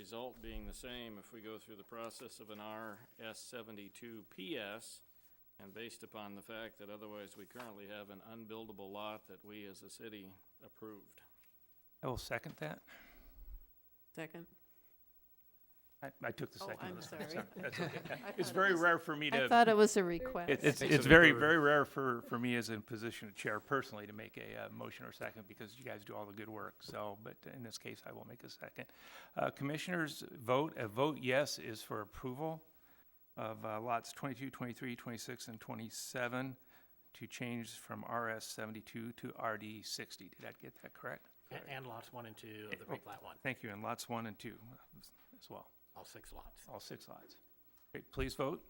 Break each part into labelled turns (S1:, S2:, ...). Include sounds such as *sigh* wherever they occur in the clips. S1: result being the same if we go through the process of an RS seventy-two PS. And based upon the fact that otherwise we currently have an unbuildable lot that we as a city approved.
S2: I will second that.
S3: Second?
S2: I, I took the
S3: Oh,
S2: second.
S3: I'm
S2: one.
S3: sorry. *laughs*
S2: That's okay.
S3: I
S2: It's
S3: thought it
S2: very
S3: was-
S2: rare for me
S3: I
S2: to,
S3: thought it was a
S2: it-
S3: request.
S2: it's,
S4: Thanks
S2: it's
S4: for the
S2: very,
S4: bird.
S2: very rare for, for me as a position of chair personally to make a, uh motion or second because you guys do all the good work. So, but in this case, I will make a second. Uh, commissioners vote, a vote yes is for approval of uh, lots 22, 23, 26, and twenty-seven to change from RS seventy-two to RD sixty. Did I get that correct?
S5: A- And lots one and two of the
S2: Oh.
S5: replat one,
S2: Thank you. And lots one and two as well,
S5: all six lots.
S2: all six lots. Great, please vote.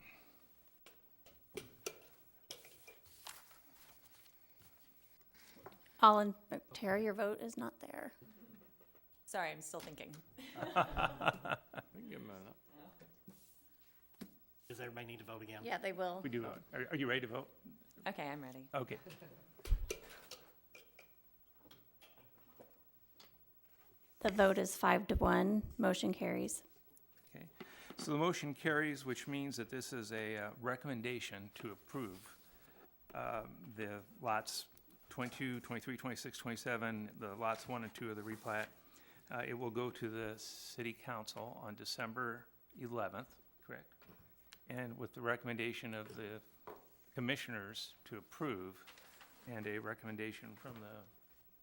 S6: All in, oh, Terry, your vote is not there.
S7: Sorry, I'm still thinking.
S1: We can give 'em a minute.
S5: Does everybody need to vote again?
S6: Yeah, they will.
S2: We do vote. Are, are you ready to vote?
S7: Okay, I'm ready.
S2: Okay.
S6: The vote is five to one. Motion carries.
S2: Okay. So the motion carries, which means that this is a uh, recommendation to approve um, the lots 22, 23, 26, 27, the lots 1 and 2 of the replat. Uh, It will go to the city council on December 11th, correct? And with the recommendation of the commissioners to approve and a recommendation from the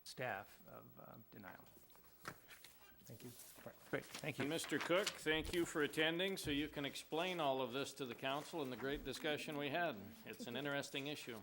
S2: staff of uh, denial. Thank you. Great, thank you.
S1: And Mr. Cook, thank you for attending, so you can explain all of this to the council and the great discussion we had. It's an interesting issue.